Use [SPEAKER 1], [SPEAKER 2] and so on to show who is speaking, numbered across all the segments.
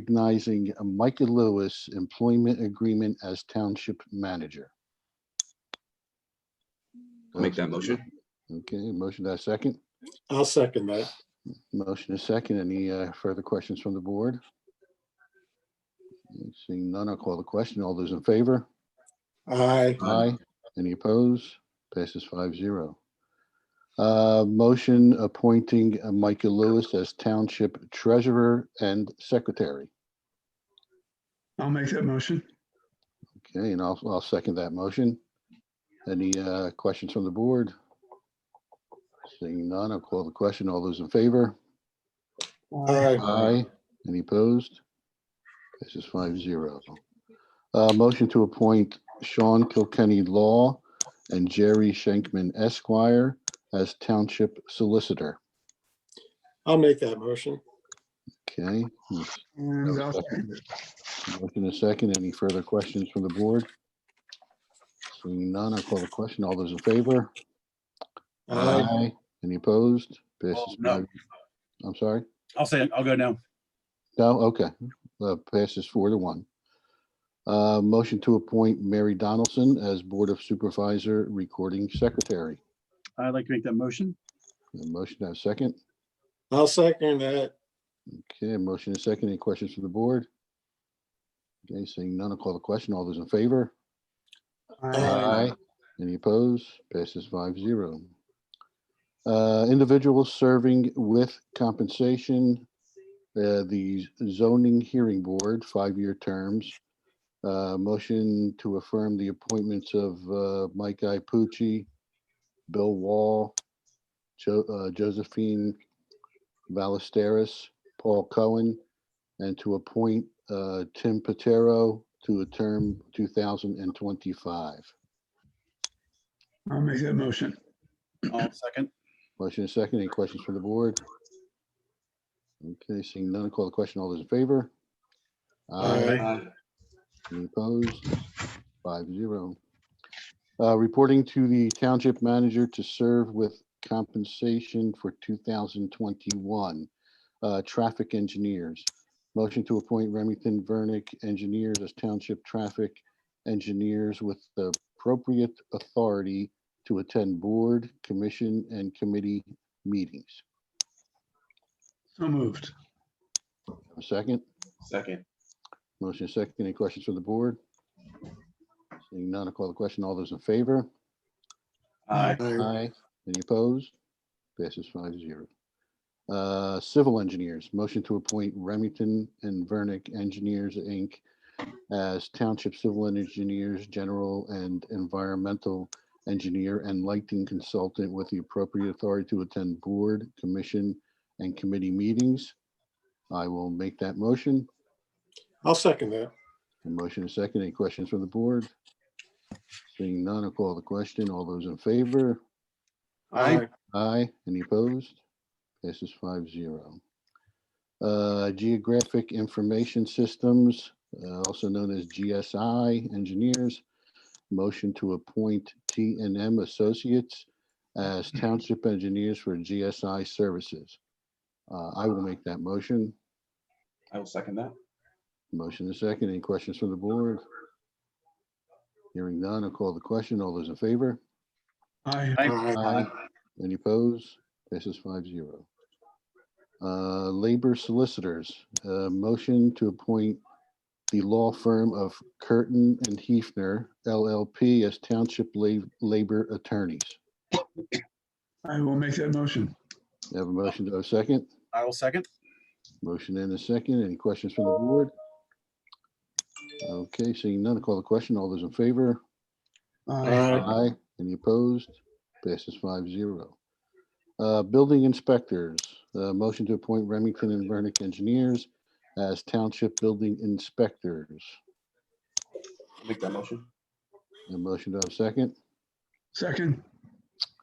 [SPEAKER 1] recognizing Micah Lewis employment agreement as township manager.
[SPEAKER 2] I'll make that motion.
[SPEAKER 1] Okay, motion to second.
[SPEAKER 3] I'll second that.
[SPEAKER 1] Motion is second. Any uh, further questions from the board? Seeing none, I'll call the question. All those in favor?
[SPEAKER 3] Aye.
[SPEAKER 1] Aye. Any opposed? Passes five zero. Uh, Motion appointing uh, Micah Lewis as Township Treasurer and Secretary.
[SPEAKER 4] I'll make that motion.
[SPEAKER 1] Okay, and I'll, I'll second that motion. Any uh, questions from the board? Seeing none, I'll call the question. All those in favor?
[SPEAKER 3] Aye.
[SPEAKER 1] Aye. Any opposed? This is five zero. Uh, motion to appoint Sean Kilkenny Law and Jerry Schenkman Esquire as Township Solicitor.
[SPEAKER 3] I'll make that motion.
[SPEAKER 1] Okay,
[SPEAKER 4] And I'll second it.
[SPEAKER 1] motion a second. Any further questions from the board? Seeing none, I'll call the question. All those in favor?
[SPEAKER 3] Aye.
[SPEAKER 1] Any opposed? Passes
[SPEAKER 5] no.
[SPEAKER 1] five- I'm sorry?
[SPEAKER 5] I'll say it. I'll go now.
[SPEAKER 1] No, okay. Uh, Passes four to one. Uh, Motion to appoint Mary Donaldson as Board of Supervisor Recording Secretary.
[SPEAKER 5] I'd like to make that motion.
[SPEAKER 1] A Motion to have a second.
[SPEAKER 3] I'll second that.
[SPEAKER 1] Okay, motion and second. Any questions from the board? Okay, seeing none, I'll call the question. All those in favor?
[SPEAKER 3] Aye.
[SPEAKER 4] Aye.
[SPEAKER 1] Any opposed? Passes five zero. Uh, individuals serving with compensation, uh, the zoning hearing board, five-year terms. Uh, motion to affirm the appointments of, uh, Mike Ipucci, Bill Wall, Jo- uh, Josephine Ballesteros, Paul Cohen, and to appoint, uh, Tim Patero to a term two thousand and twenty-five.
[SPEAKER 4] I'll make that motion.
[SPEAKER 5] I'll second.
[SPEAKER 1] Motion is second. Any questions from the board? Okay, seeing none, call the question. All those in favor?
[SPEAKER 3] Aye.
[SPEAKER 1] Any opposed? Five zero. Uh, reporting to the township manager to serve with compensation for two thousand twenty-one. Uh, traffic engineers. Motion to appoint Remington Vernick engineers as township traffic engineers with the appropriate authority to attend board, commission, and committee meetings.
[SPEAKER 4] So moved.
[SPEAKER 1] Have A second?
[SPEAKER 2] Second.
[SPEAKER 1] Motion is second. Any questions from the board? Seeing none, I'll call the question. All those in favor?
[SPEAKER 5] Aye.
[SPEAKER 3] Aye.
[SPEAKER 1] Aye. Any opposed? Passes five zero. Uh, Civil engineers, motion to appoint Remington and Vernick Engineers, Inc. as Township Civil Engineers, General and Environmental Engineer and Lighting Consultant with the appropriate authority to attend board, commission, and committee meetings. I will make that motion.
[SPEAKER 3] I'll second that.
[SPEAKER 1] A motion is second. Any questions from the board? Seeing none, I'll call the question. All those in favor?
[SPEAKER 4] Aye.
[SPEAKER 1] Aye, any opposed? Passes five zero. Uh, Geographic Information Systems, uh, also known as GSI Engineers. Motion to appoint T and M Associates as Township Engineers for GSI Services. Uh, I will make that motion.
[SPEAKER 2] I will second that.
[SPEAKER 1] Motion is second. Any questions from the board? Hearing none, I'll call the question. All those in favor?
[SPEAKER 4] Aye.
[SPEAKER 3] Aye.
[SPEAKER 1] Aye. Any pose? Passes five zero. Uh, labor solicitors, uh, motion to appoint the law firm of Curtin and Hefner LLP as township la- labor attorneys.
[SPEAKER 4] I will make that motion.
[SPEAKER 1] I Have a motion to a second?
[SPEAKER 5] I will second.
[SPEAKER 1] Motion and a second. Any questions from the board? Okay, seeing none, call the question. All those in favor?
[SPEAKER 4] Aye.
[SPEAKER 3] Aye.
[SPEAKER 1] Aye. Any opposed? Passes five zero. Uh, building inspectors, uh, motion to appoint Remington and Vernick engineers as township building inspectors.
[SPEAKER 2] I'll make that motion.
[SPEAKER 1] A motion to have a second,
[SPEAKER 4] Second.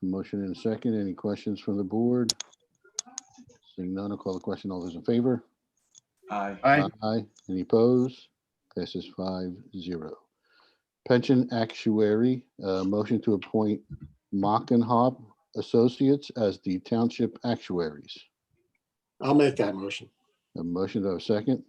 [SPEAKER 1] motion and a second. Any questions from the board? Seeing none, I'll call the question. All those in favor?
[SPEAKER 2] Aye.
[SPEAKER 5] Aye.
[SPEAKER 1] Aye. Any opposed? Passes five zero. Pension actuary, uh, motion to appoint Mock and Hop Associates as the township actuaries.
[SPEAKER 3] I'll make that motion.
[SPEAKER 1] A motion to have a second?